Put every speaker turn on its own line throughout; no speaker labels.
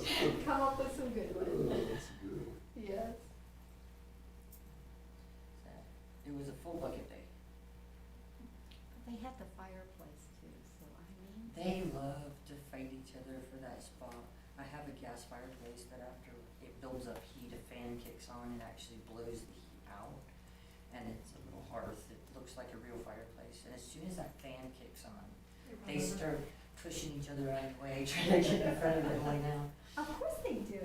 Come up with some good
Oh,
ones,
that's good.
yes.
So, It was a full bucket day.
They had the fireplace too, so I mean.
They love to fight each other for that spot. I have a gas fireplace, but after it builds up heat, a fan kicks on and actually blows the heat out. And it's a little hearth, it looks like a real fireplace, and as soon as that fan kicks on, they start pushing each other out of the way, trying to get in front of it right now.
Of course they do.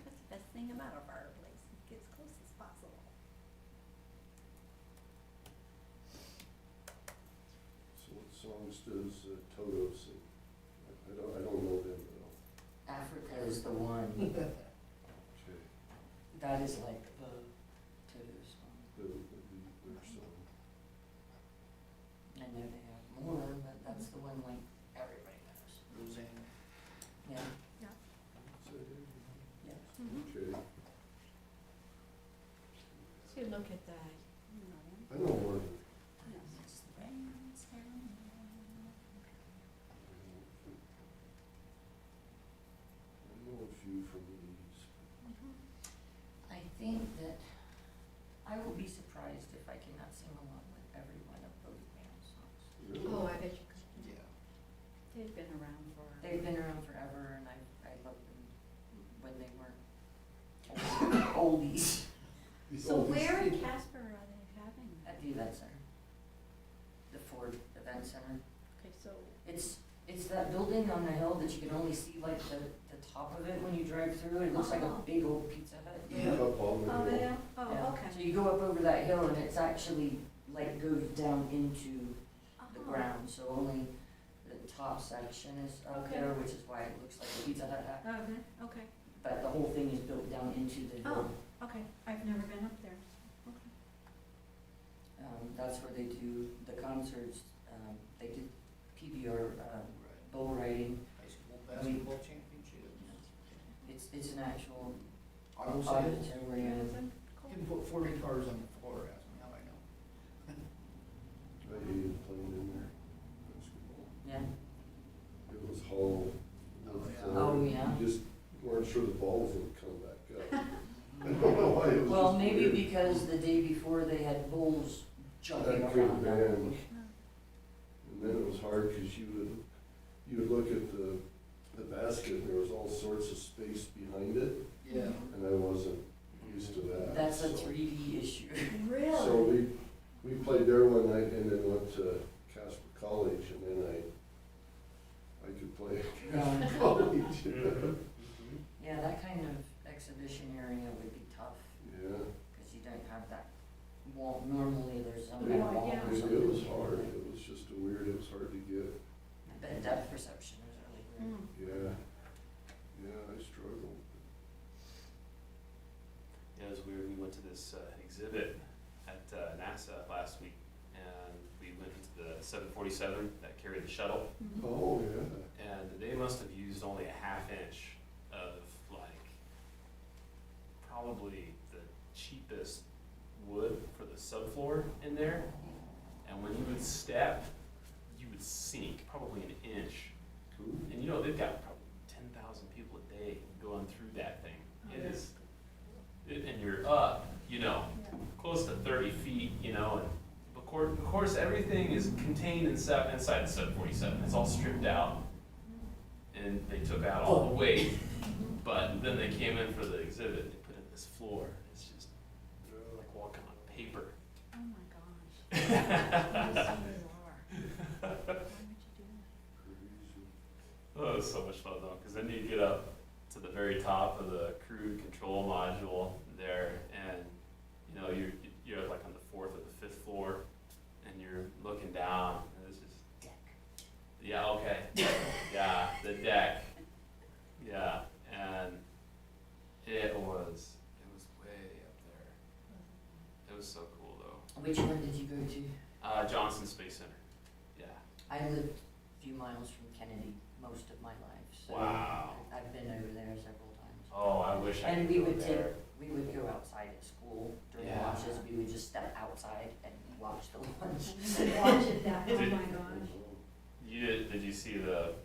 That's the best thing about a fireplace, it gets close as possible.
So what songs does uh, Toto sing? I- I don't, I don't know them at all.
Africa is the one,
Okay,
that is like the Toto song.
the, the, their song.
I know they have more, but that's the one like everybody knows.
Roseanne.
Yeah,
So,
yeah.
Mm-hmm.
Okay,
So look at that, you know,
I know one.
It's the rains down
I know a few from the eighties.
I think that I will be surprised if I cannot sing along with every one of those band songs.
Oh, I bet you could.
Yeah.
They've been around for.
They've been around forever and I, I loved them when they were oldies
So where in Casper are they having that?
at the event center. The Ford Event Center.
Okay, so,
It's, it's that building on the hill that you can only see like the, the top of it when you drive through. It looks like a big old pizza hut.
Yeah, up on the
Oh,
hill.
they are,
Yeah.
oh,
So
okay.
you go up over that hill and it's actually like goes down into the
Uh-huh.
ground, so only the top section is up
Okay.
there, which is why it looks like a pizza hut. hut.
Okay, Uh-huh. okay,
But the whole thing is built down into the hill.
okay, I've never been up there, okay. Oh.
Um, that's where they do the concerts, um, they did PBR, uh,
Right.
bull riding.
High school basketball championships.
It's, it's an actual
Auto sales.
auditorium.
Isn't cool.
Can put forty cars on the floor, ask me how I know.
I hated playing in there. Basketball.
Yeah,
It was hollow. It was,
Oh,
yeah.
uh,
Oh, yeah.
You just weren't sure the balls would come back up. I don't know why it was
well,
just
maybe
weird.
because the day before they had bulls jumping
That could have
around.
been. And then it was hard because you would, you would look at the, the basket and there was all sorts of space behind it
Yeah.
and I wasn't used to that.
That's a
so-
three D issue.
Really?
So we, we played there one night and then went to Casper College and then I, I could play at
Um,
Casper College.
Yeah, that kind of exhibition area would be tough,
Yeah,
because you don't have that wall, normally there's some kind
Yeah,
of wall
yeah.
or
it
something.
it was hard. It was just a weird, it was hard to get.
But depth perception is really weird.
mm,
Yeah, yeah, I struggled.
Yeah, it was weird. We went to this uh, exhibit at uh, NASA last week, and we went into the 747 that carried the shuttle,
Mhm.
Oh, yeah.
and they must have used only a half inch of like probably the cheapest wood for the subfloor in there. And when you would step, you would sink probably an inch. And you know they've got probably 10,000 people a day going through that thing. It is, it, and you're up, you know,
Yeah.
close to thirty feet, you know, and of course, of course, everything is contained inside, inside the sub forty-seven, it's all stripped out. And they took out all the weight, but then they came in for the exhibit, they put in this floor, it's just like walking on paper.
Oh my gosh. Yes, you are. Why would you do that?
Crazy.
Oh, it was so much fun though, because then you get up to the very top of the crew control module there, and you know you're you're like on the fourth or the fifth floor, and you're looking down, and it's just
Deck.
yeah, okay, yeah, the deck, yeah, and it was it was way up there. It was so cool though.
Which one did you go to?
Uh, Johnson Space Center, yeah.
I lived a few miles from Kennedy most of my life, so.
Wow.
I've been over there several times.
Oh, I wish I
And
could
we
go
would take,
there.
we would go outside at school during
Yeah.
lunches, we would just step outside and watch the lunch.
Watch it that, oh my
Did-
gosh.
Wow.
You did, did you see the